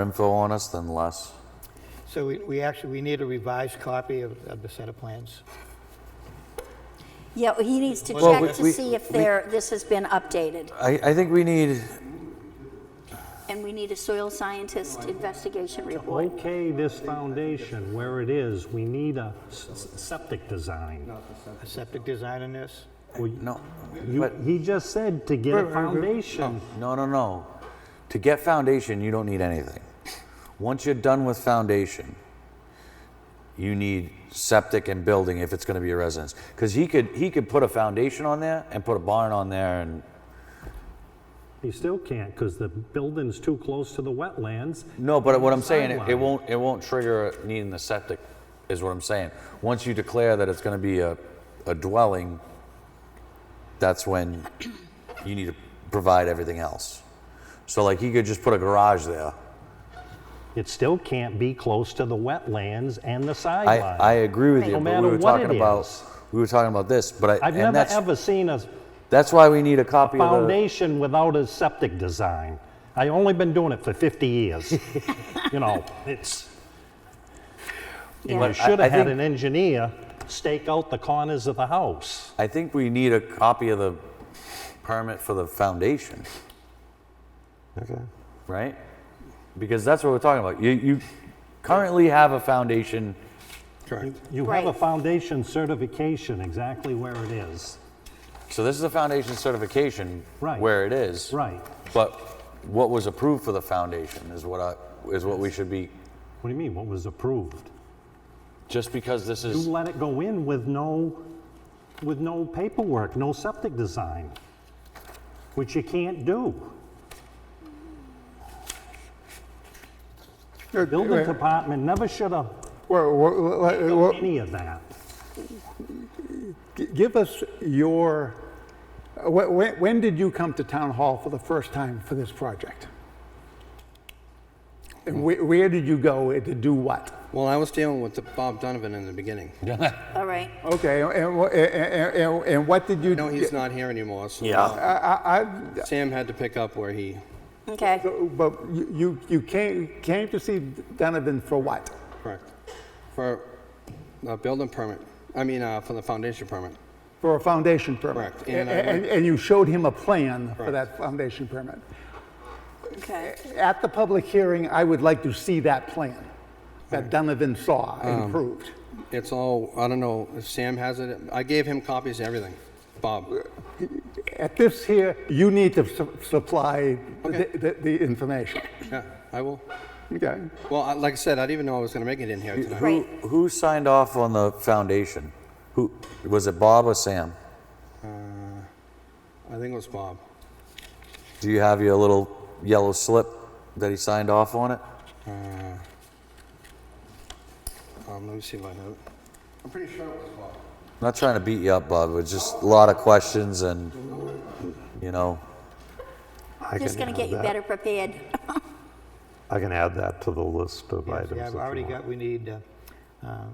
info on us, then less. So we, we actually, we need a revised copy of, of the set of plans. Yeah, he needs to Well, we- check we- to see if we- there, this has been updated. I, I think we need, And we need a soil scientist investigation report. Okay, this foundation, where it is, we need a s- s- septic design. A septic design in this? no, You- but, He just said to get a foundation. no, no, no. To get foundation, you don't need anything. Once you're done with foundation, you need septic and building if it's gonna be a residence. Cause he could, he could put a foundation on there and put a barn on there and, You still can't, because the building's too close to the wetlands. no, but what I'm saying, it- it Sideline. won't, it won't trigger needing the septic, is what I'm saying. Once you declare that it's gonna be a, a dwelling, that's when you need to provide everything else. So like he could just put a garage there. It still can't be close to the wetlands and the I, sideline. I agree with you, No but matter we were what talking it about, is. we were talking about this, but I, I've and never, that's, ever seen a that's why we need a copy of the, foundation without a septic design. I only been doing it for 50 years. You know, it's, and Yeah. you should have had think- an engineer stake out the corners of the house. I think we need a copy of the permit for the foundation, Okay. right? Because that's what we're talking about. You, you currently have a foundation, Correct. You have a Right. foundation certification exactly where it is. so this is a foundation certification Right. where it is. Right. But what was approved for the foundation is what I, is what we should be, What do you mean, what was approved? just because this You is, let it go in with no, with no paperwork, no septic design, which you can't do. Well, Building department never should have well, well, well, any of that. g- Give us your, uh, wh- wh- when did you come to Town Hall for the first time for this project? And wh- where did you go to do what? Well, I was dealing with the Bob Donovan in the beginning. All right. Okay, and wh- and- and and what did you? No, he's not here anymore, so yeah, I- I- Sam had to pick up where he, Okay. But you- you you came came to see Donovan for what? correct, for a building permit, I mean, uh, for the foundation permit. For a foundation permit? Correct, A- and I And went- and you showed him a plan for Correct. that foundation permit? Okay. At the public hearing, I would like to see that plan that Donovan saw and Um, approved. It's all, I don't know if Sam has it, I gave him copies of everything, Bob. At this here, you need to su- supply the- the the information. Yeah, I will. Okay? Well, I- like I said, I didn't even know I was gonna make it in here tonight. who, Right. who signed off on the foundation? Who, was it Bob or Sam? I think it was Bob. Do you have your little yellow slip that he signed off on it? Um, let me see if I have it. I'm pretty sure it was Bob. I'm not trying to beat you up, Bob. It's just a lot of questions and, you know, I Just can going to get add you that, better prepared. I can add that to the list of Yes, items. yeah, I've if you already want. got, we need a, um,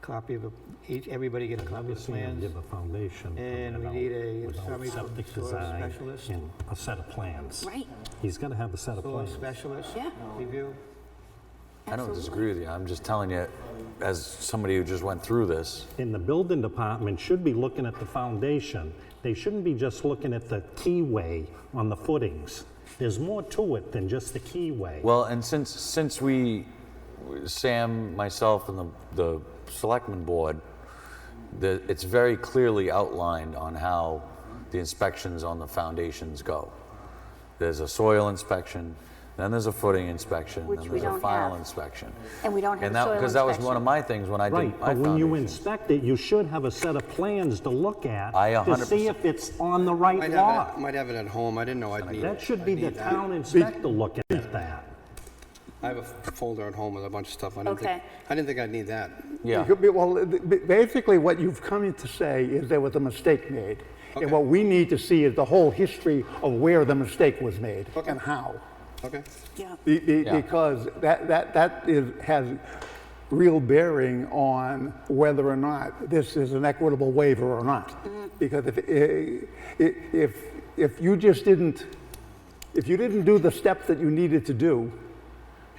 copy of, the- each, everybody get a copy of the Obviously, you plans. give a foundation. permit And we out need a without summary from septic soil design specialist. And a set of plans. Right. He's got to have a set of Soil plans. specialist. Yeah. Review. I don't disagree with you. I'm just telling you, as somebody who just went through this, And the building department should be looking at the foundation. They shouldn't be just looking at the keyway on the footings. There's more to it than just the keyway. well, and since, since we, Sam, myself, and the, the selectmen board, the, it's very clearly outlined on how the inspections on the foundations go. There's a soil inspection, then there's a footing inspection, Which then we there's a don't file have. inspection. And we don't have And a that, soil because that was one of inspection. my things when I did Right, my but when you foundations. inspect it, you should have a set of plans to look at I a to hundred see percent- if it's on the right Might have it, lot. might have it at home, I didn't know I'd need That it. should be the town inspector looking at that. I have a folder at home with a bunch of stuff, I didn't Okay. think, I didn't think I'd need that. Yeah. It could be- Well, b- b- basically, what you've come in to say is there was a mistake made. And Okay. what we need to see is the whole history of where the mistake was made and how. Okay, Yeah. Be- be- Yeah. Because that, that, that is, has real bearing on whether or not this is an equitable waiver or not. Because if, eh, i- i- if, if you just didn't, if you didn't do the steps that you needed to do,